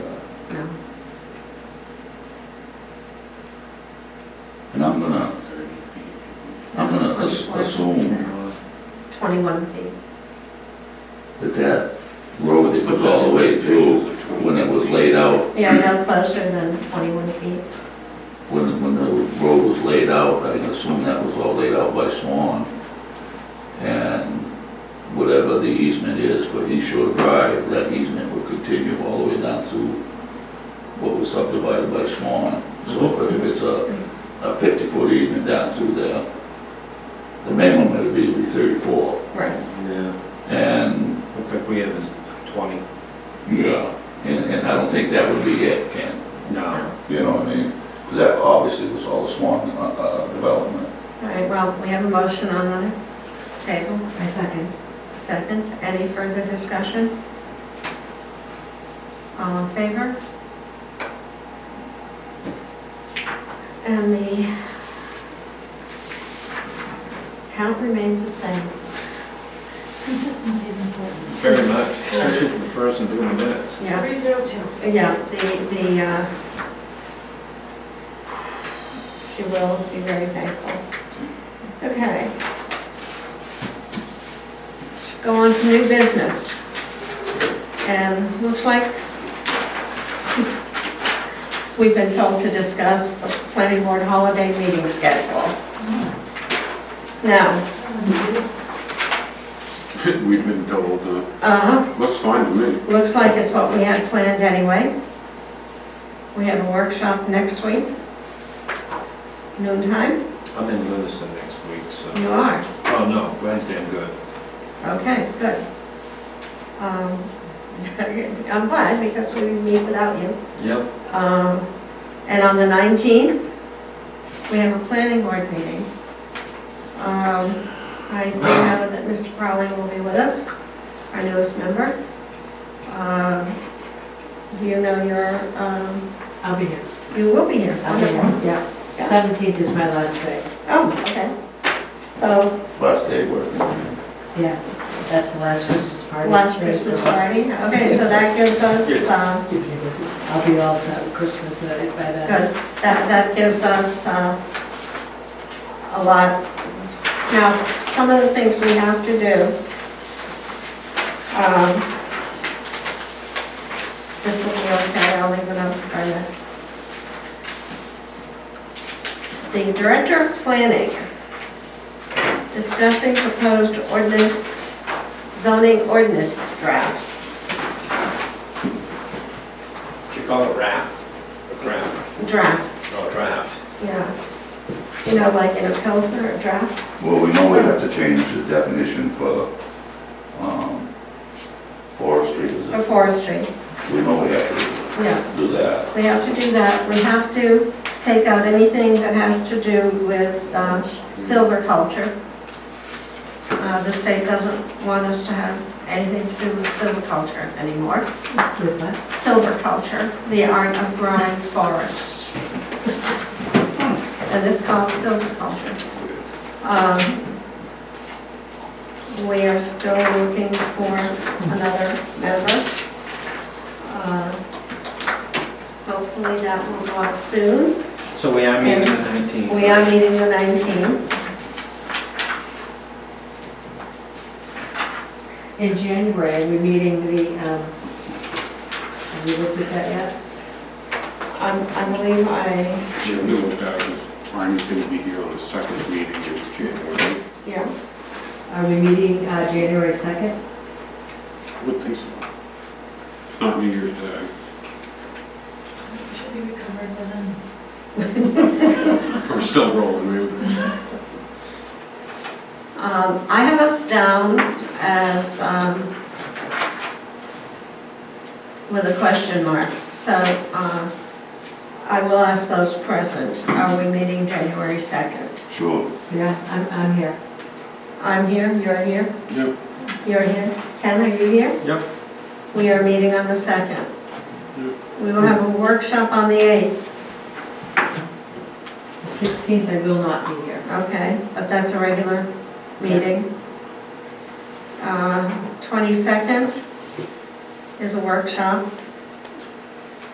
And I'm gonna, I'm gonna as- assume 21 feet. that that road that was all the way through, when it was laid out, Yeah, no closer than 21 feet. when, when the road was laid out, I assume that was all laid out by Swan. And whatever the easement is for East Shore Drive, that easement would continue all the way down through what was subdivided by Swan. So if it's a, a fifty-foot easement down through there, the minimum would be, would be thirty-four. Right. Yeah, And looks like we have is 20. Yeah, and, and I don't think that would be it, Ken, No. you know what I mean? 'Cause that obviously was all the Swan, uh, uh, development. All right, well, we have a motion on the table. I second. Second. Any further discussion? All in favor? And the count remains the same. Consistency is important. Very much, especially for the person doing the minutes. Yeah, Three zero two. Uh, yeah, the, the, uh, she will be very thankful. Okay. Go on to new business. And looks like we've been told to discuss the planning board holiday meeting schedule. Now, We've been told, uh, uh, looks fine to me. Looks like it's what we had planned anyway. We have a workshop next week. Noontime? I'm in Lewiston next week, so, You are. oh no, Wednesday I'm good. Okay, good. Um, I'm glad because we meet without you. Yep. Um, And on the 19th, we have a planning board meeting. Um, I do know that Mr. Crowley will be with us, our newest member. Um, Do you know your, um, I'll be here. You will be here. I'll be here, yeah. Yeah. Seventeenth is my last day. Oh, okay. So, Last day working. Yeah, that's the last Christmas party. last Christmas party, okay, so that gives us, uh, I'll be all set with Christmas uh, by good, then. that, that gives us uh, a lot. Now, some of the things we have to do. um, This will be okay, I'll leave it up for you. The director of planning discussing proposed ordinance, zoning ordinance drafts. Did you call it raft? A craft? draft, Oh, draft. yeah. You know, like in a Pilsner, a draft? Well, we know we have to change the definition for, um, forestry, is Or it? forestry, we know we have yeah. to do that. We have to do that, we have to take out anything that has to do with um, silviculture. Uh, The state doesn't want us to have anything to do with silviculture anymore. With what? Silviculture, the art of growing forests. And it's called silviculture. Um, We are still looking for another member. Uh, Hopefully that will go out soon. So we are meeting the 19th. We are meeting the 19th. In January, we're meeting the, um, have you looked at that yet? I'm- I believe I, Yeah, no, I was trying to be here on the second meeting in January. yeah, Are we meeting uh, January second? I Would think so. It's not New Year's Day. Should be recovered by then. We're still rolling, maybe. Um, I have us down as, um, with a question mark, so, uh, I will ask those present, are we meeting January 2nd? Sure. Yeah, I'm, I'm here. I'm here, you're here, Yep. you're here, Ken, are you here? Yep. We are meeting on the 2nd. Yep. We will have a workshop on the 8th, The sixteenth, I will not be here. okay, but that's a regular meeting. Uh, 22nd is a workshop,